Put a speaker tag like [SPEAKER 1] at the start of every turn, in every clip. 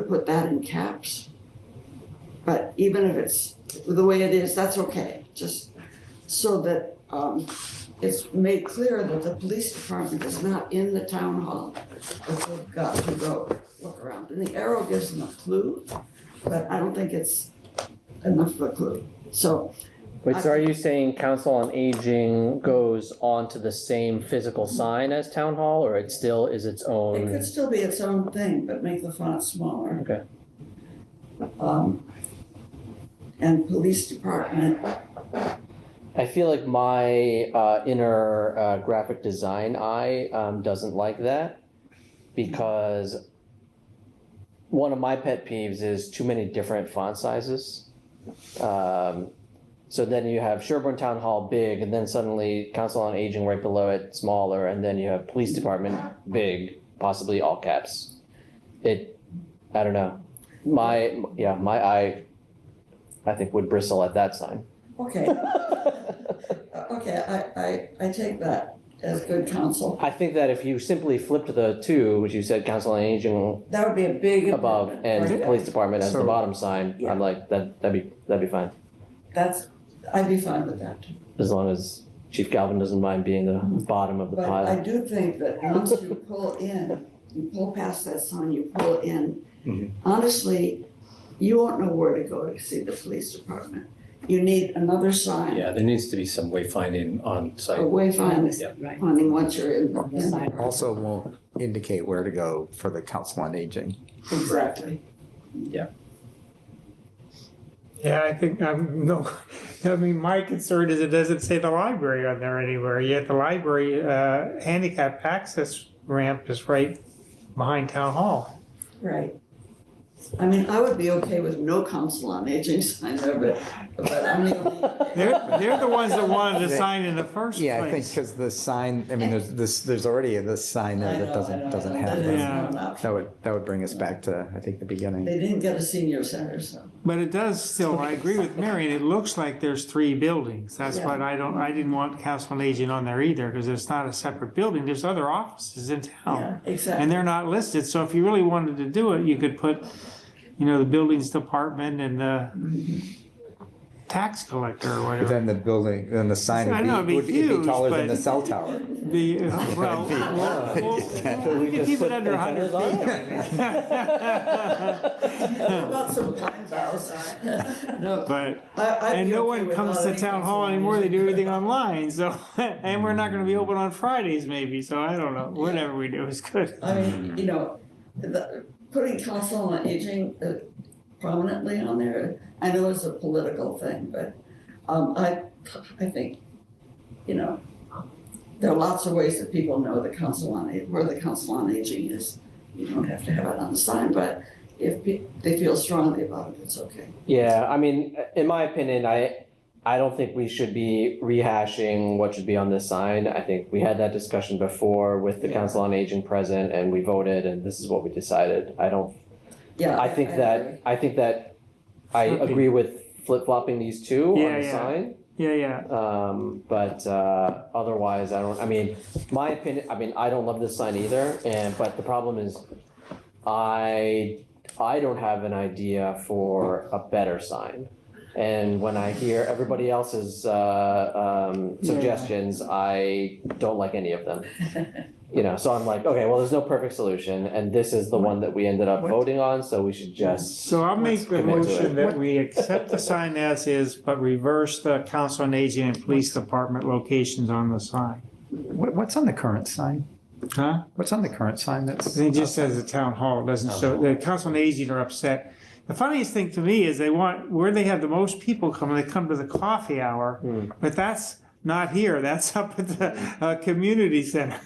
[SPEAKER 1] put that in caps. But even if it's the way it is, that's okay, just so that, um, it's made clear that the police department is not in the town hall. But we've got to go look around, and the arrow gives them a clue, but I don't think it's enough of a clue. So,
[SPEAKER 2] Wait, so are you saying council on aging goes onto the same physical sign as town hall or it still is its
[SPEAKER 1] it could
[SPEAKER 2] own?
[SPEAKER 1] still be its own thing, but make the font smaller.
[SPEAKER 2] Okay,
[SPEAKER 1] um, and police department,
[SPEAKER 2] I feel like my uh inner uh graphic design eye um doesn't like that because one of my pet peeves is too many different font sizes. Um, so then you have Sherburne Town Hall big and then suddenly council on aging right below it smaller and then you have police department big, possibly all caps. It, I don't know, my, yeah, my eye, I think would bristle at that sign.
[SPEAKER 1] okay, uh, okay, I, I, I take that as good counsel.
[SPEAKER 2] I think that if you simply flipped the two, which you said council on aging
[SPEAKER 1] That would be a big.
[SPEAKER 2] above
[SPEAKER 1] improvement,
[SPEAKER 2] and
[SPEAKER 1] right?
[SPEAKER 2] police department as the
[SPEAKER 3] So-
[SPEAKER 2] bottom sign,
[SPEAKER 1] Yeah.
[SPEAKER 2] I'm like, that, that'd be, that'd be fine.
[SPEAKER 1] That's, I'd be fine with that,
[SPEAKER 2] As long as Chief Galvin doesn't mind being the bottom of the
[SPEAKER 1] but I
[SPEAKER 2] pile.
[SPEAKER 1] do think that once you pull in, you pull past that sign, you pull in.
[SPEAKER 3] Mhm.
[SPEAKER 1] Honestly, you won't know where to go to see the police department. You need another sign,
[SPEAKER 4] Yeah, there needs to be some wayfinding on
[SPEAKER 1] a
[SPEAKER 4] site.
[SPEAKER 1] wayfinding,
[SPEAKER 4] Yeah.
[SPEAKER 5] Right.
[SPEAKER 1] finding once you're in. the- in the-
[SPEAKER 3] Also won't indicate where to go for the council on aging.
[SPEAKER 1] Exactly.
[SPEAKER 6] Yeah, I think, um, no, I mean, my concern is it doesn't say the library on there anywhere, yet the library, uh, handicap access ramp is right behind town hall.
[SPEAKER 1] Right. I mean, I would be okay with no council on aging signs over, but I'm the only.
[SPEAKER 6] They're, they're the ones that wanted to sign in the first place.
[SPEAKER 3] Yeah, I think because the sign, I mean, there's this, there's already this sign
[SPEAKER 1] I know,
[SPEAKER 3] there that
[SPEAKER 1] I know,
[SPEAKER 3] doesn't, doesn't
[SPEAKER 1] I know,
[SPEAKER 3] have
[SPEAKER 1] that is
[SPEAKER 3] that.
[SPEAKER 1] not enough.
[SPEAKER 3] That would, that would bring us back to, I think, the beginning.
[SPEAKER 1] They didn't get a senior center, so.
[SPEAKER 6] But it does still, I agree with Marion, it looks like there's three buildings. That's
[SPEAKER 1] Yeah.
[SPEAKER 6] what I don't, I didn't want council on aging on there either, because it's not a separate building, there's other offices in town.
[SPEAKER 1] Yeah, exactly.
[SPEAKER 6] Oh. And they're not listed, so if you really wanted to do it, you could put, you know, the buildings department and the tax collector or
[SPEAKER 3] But
[SPEAKER 6] whatever.
[SPEAKER 3] then the building, then the sign
[SPEAKER 6] I know, it'd
[SPEAKER 3] would
[SPEAKER 6] be
[SPEAKER 3] be, would it'd
[SPEAKER 6] huge,
[SPEAKER 3] be taller than
[SPEAKER 6] but-
[SPEAKER 3] the cell tower.
[SPEAKER 6] The, uh, well, well, well, we could keep it under hundred feet.
[SPEAKER 1] About some pine boughs. No,
[SPEAKER 6] But,
[SPEAKER 1] I, I'd
[SPEAKER 6] and
[SPEAKER 1] be
[SPEAKER 6] no
[SPEAKER 1] okay
[SPEAKER 6] one
[SPEAKER 1] with
[SPEAKER 6] comes
[SPEAKER 1] not
[SPEAKER 6] to
[SPEAKER 1] any
[SPEAKER 6] town
[SPEAKER 1] council
[SPEAKER 6] hall
[SPEAKER 1] on
[SPEAKER 6] anymore, they
[SPEAKER 1] aging.
[SPEAKER 6] do everything online, so, and we're not gonna be open on Fridays maybe, so I don't know, whatever we do is good.
[SPEAKER 1] I mean,
[SPEAKER 2] Mm.
[SPEAKER 1] you know, the, putting council on aging uh, prominently on there, I know it's a political thing, but, um, I, I think, you know, there are lots of ways that people know the council on, A- where the council on aging is. You don't have to have it on the sign, but if pe- they feel strongly about it, it's okay.
[SPEAKER 2] Yeah, I mean, in my opinion, I, I don't think we should be rehashing what should be on this sign. I think we had that discussion before with the council on aging present and we voted and this is what we decided. I don't
[SPEAKER 1] Yeah.
[SPEAKER 2] I think that, I think that I
[SPEAKER 6] Flipping.
[SPEAKER 2] agree with flip-flopping these two
[SPEAKER 6] Yeah,
[SPEAKER 2] on the
[SPEAKER 6] yeah.
[SPEAKER 2] sign.
[SPEAKER 6] Yeah, yeah,
[SPEAKER 2] Um, but, uh, otherwise, I don't, I mean, my opinion, I mean, I don't love this sign either, and, but the problem is I, I don't have an idea for a better sign. And when I hear everybody else's, uh, um,
[SPEAKER 6] Yeah.
[SPEAKER 2] suggestions, I don't like any of them.
[SPEAKER 1] that.
[SPEAKER 2] You know, so I'm like, okay, well, there's no perfect solution, and this is the one that we ended up
[SPEAKER 6] What?
[SPEAKER 2] voting on, so we should just.
[SPEAKER 6] so I'll make
[SPEAKER 2] Let's
[SPEAKER 6] the
[SPEAKER 2] commit to
[SPEAKER 6] motion
[SPEAKER 2] it.
[SPEAKER 6] that we accept the sign as is, but reverse the council on aging and police department locations on the sign.
[SPEAKER 3] What, what's on the current sign?
[SPEAKER 6] Huh?
[SPEAKER 3] What's on the current sign that's?
[SPEAKER 6] It just says the town hall, it doesn't show, the council on aging are upset. The funniest thing to me is they want, where they have the most people come, they come to the coffee hour,
[SPEAKER 2] Hmm.
[SPEAKER 6] but that's not here, that's up at the, uh, community center.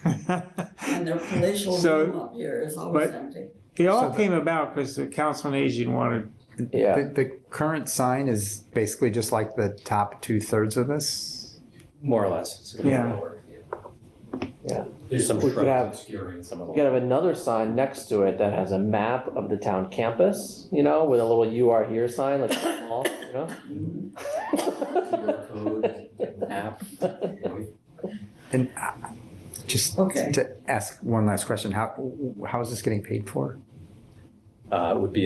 [SPEAKER 1] And their palatial
[SPEAKER 6] So-
[SPEAKER 1] room up here is always
[SPEAKER 6] but-
[SPEAKER 1] empty.
[SPEAKER 6] They
[SPEAKER 3] So
[SPEAKER 6] all
[SPEAKER 3] the-
[SPEAKER 6] came about because the council on aging wanted,
[SPEAKER 2] Yeah.
[SPEAKER 3] The, the current sign is basically just like the top two thirds of this.
[SPEAKER 4] More or less. It's gonna be
[SPEAKER 6] Yeah.
[SPEAKER 4] lower.
[SPEAKER 2] Yeah.
[SPEAKER 4] There's some
[SPEAKER 2] We could have-
[SPEAKER 4] shrubs obscuring some of
[SPEAKER 2] We
[SPEAKER 4] the.
[SPEAKER 2] could have another sign next to it that has a map of the town campus, you know, with a little you are here sign, like small, you know?
[SPEAKER 4] QR code app.
[SPEAKER 3] And uh, just
[SPEAKER 1] Okay.
[SPEAKER 3] to ask one last question, how, how is this getting paid for?
[SPEAKER 4] Uh, would be